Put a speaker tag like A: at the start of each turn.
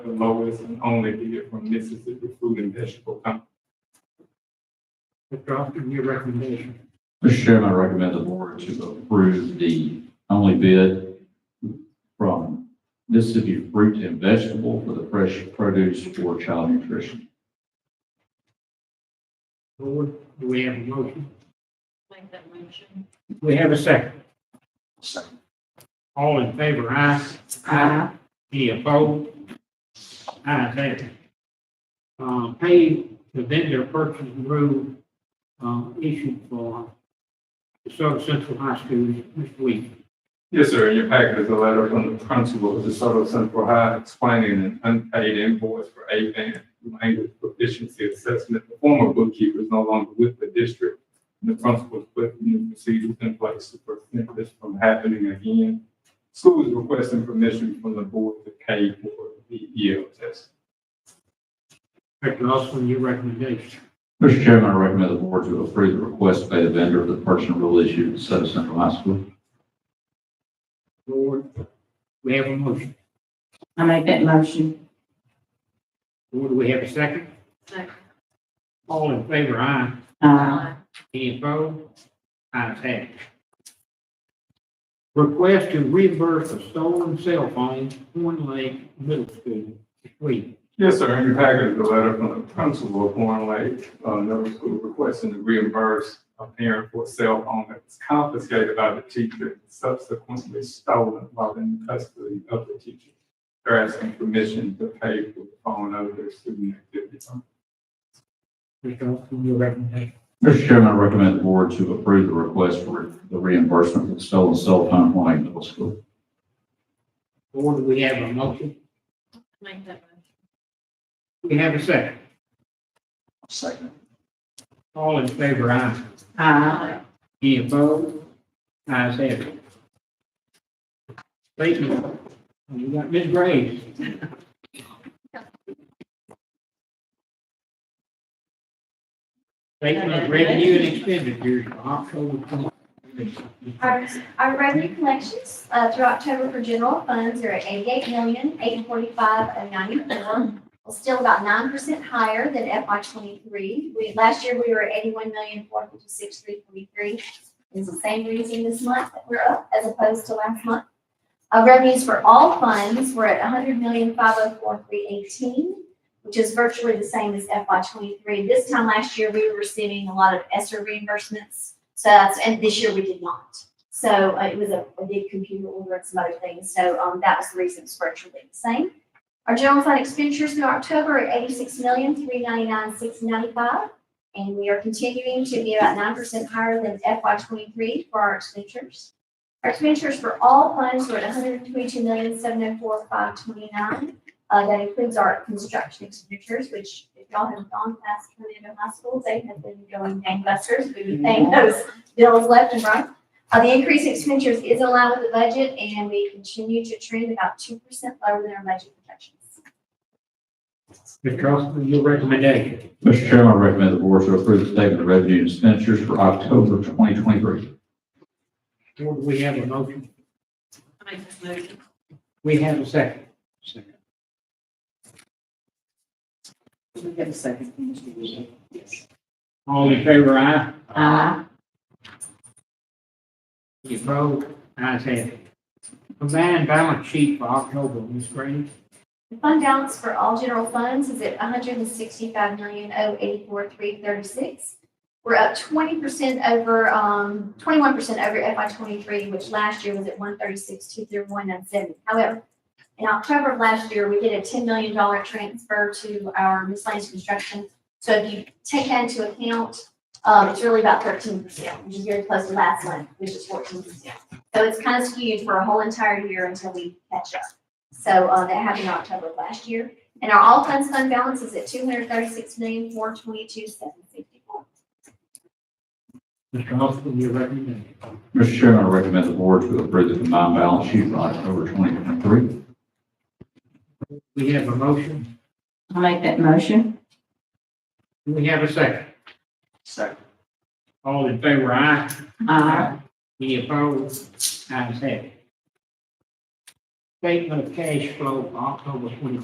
A: the lowest and only bid from Mississippi Food and Vegetable Company.
B: Mr. Austin, your recommendation.
C: Mr. Chairman, I recommend the board to approve the only bid from Mississippi Fruit and Vegetable for the fresh produce for child nutrition.
B: Lord, do we have a motion?
D: Make that motion.
B: Do we have a second? All in favor, aye. Aye. Any opposed? Ayes have it. Uh, pay the vendor purchase rule, uh, issued for Minnesota Central High School, Mr. Weeks.
A: Yes, sir, in your packet is a letter from the principal of DeSoto Central High explaining an unpaid invoice for AVAN language proficiency assessment. The former bookkeeper is no longer with the district. and The principal put new procedures in place to prevent this from happening again. School is requesting permission from the board to pay for the EL test.
B: Mr. Austin, your recommendation.
C: Mr. Chairman, I recommend the board to approve the request by the vendor of the personal rule issued at Soto Central High School.
B: Lord, we have a motion.
E: I make that motion.
B: Lord, do we have a second?
D: Second.
B: All in favor, aye.
E: Uh,
B: Any opposed? Ayes have it. Request to reimburse a stolen cell phone, Horn Lake Middle School, Sweet.
A: Yes, sir. In your packet is a letter from the principal of Horn Lake uh, Middle School requesting to reimburse a parent for a cell phone that was confiscated by the teacher and subsequently stolen while in custody of the teacher. They're asking permission to pay for the phone out of their student activity fund.
B: Mr. Austin, your recommendation.
C: Mr. Chairman, I recommend the board to approve the request for the reimbursement for the stolen cell phone from Lake Middle School.
B: Board, do we have a motion?
D: Make that motion.
B: Do We have a second.
C: Second.
B: All in favor, aye.
E: uh,
B: Any opposed? Ayes have it. Thank you. You got Ms. Graves. Statement of revenue and expenditure for October twenty.
F: Our, our revenue collections, uh, through October for general funds are at eighty-eight million, eight forty-five, oh ninety-four. Well, still about nine percent higher than FY twenty-three. We, last year, we were at eighty-one million, four fifty-six, three forty-three. It's the same reason this month that we're up as opposed to last month. Our revenues for all funds were at 100,504,318, which is virtually the same as FY twenty-three. This time last year, we were receiving a lot of ESSER reimbursements. So that's, and this year we did not. So uh, it was a, a big computer order and some other things, so, um, that was the reason it's virtually the same. Our general fund expenditures in October are eighty-six million, three ninety-nine, six ninety-five. And we are continuing to be about nine percent higher than FY twenty-three for our expenditures. Our expenditures for all funds were at 122,704,529. Uh, that includes our construction expenditures, which if y'all have gone past Tornado High School, they have been going gangbusters. We've been paying those bills left and right. Uh, the increase in expenditures is in line with the budget, and we continue to trend about two percent lower than our budget projections.
B: Mr. Austin, your recommendation.
C: Mr. Chairman, I recommend the board to approve the statement of revenue and expenditures for October 2023.
B: Board, we have a motion.
D: I Make that motion.
B: We have a second.
E: we have a second. Mr. Weaver. Yes.
B: All in favor, aye.
E: Uh,
B: Any opposed? Ayes have it. Combined balance sheet for October, Ms. Graves.
F: The fund balance for all general funds is at 165,084,336. hundred and sixty-five million, oh eighty-four, three thirty-six. We're up twenty percent over, um, twenty-one percent over FY twenty-three, which last year was at one thirty-six, two through one nine seven. However, in October of last year, we did a ten million dollar transfer to our miscellaneous construction. So if you take that into account, um, it's really about thirteen percent, which is very close to last month, which is fourteen percent. So it's kind of skewed for a whole entire year until we catch up. So uh, that happened in October of last year. And our all funds fund balance is at two hundred thirty-six million, four twenty-two, seven sixty-four.
B: Mr. Austin, your recommendation.
C: Mr. Chairman, I recommend the board to approve the combined balance sheet for October 2023.
B: We have a motion.
E: I make that motion.
B: Do we have a second?
C: Second.
B: All in favor, aye.
E: Uh,
B: Any opposed? Ayes have it. Statement of cash flow for October twenty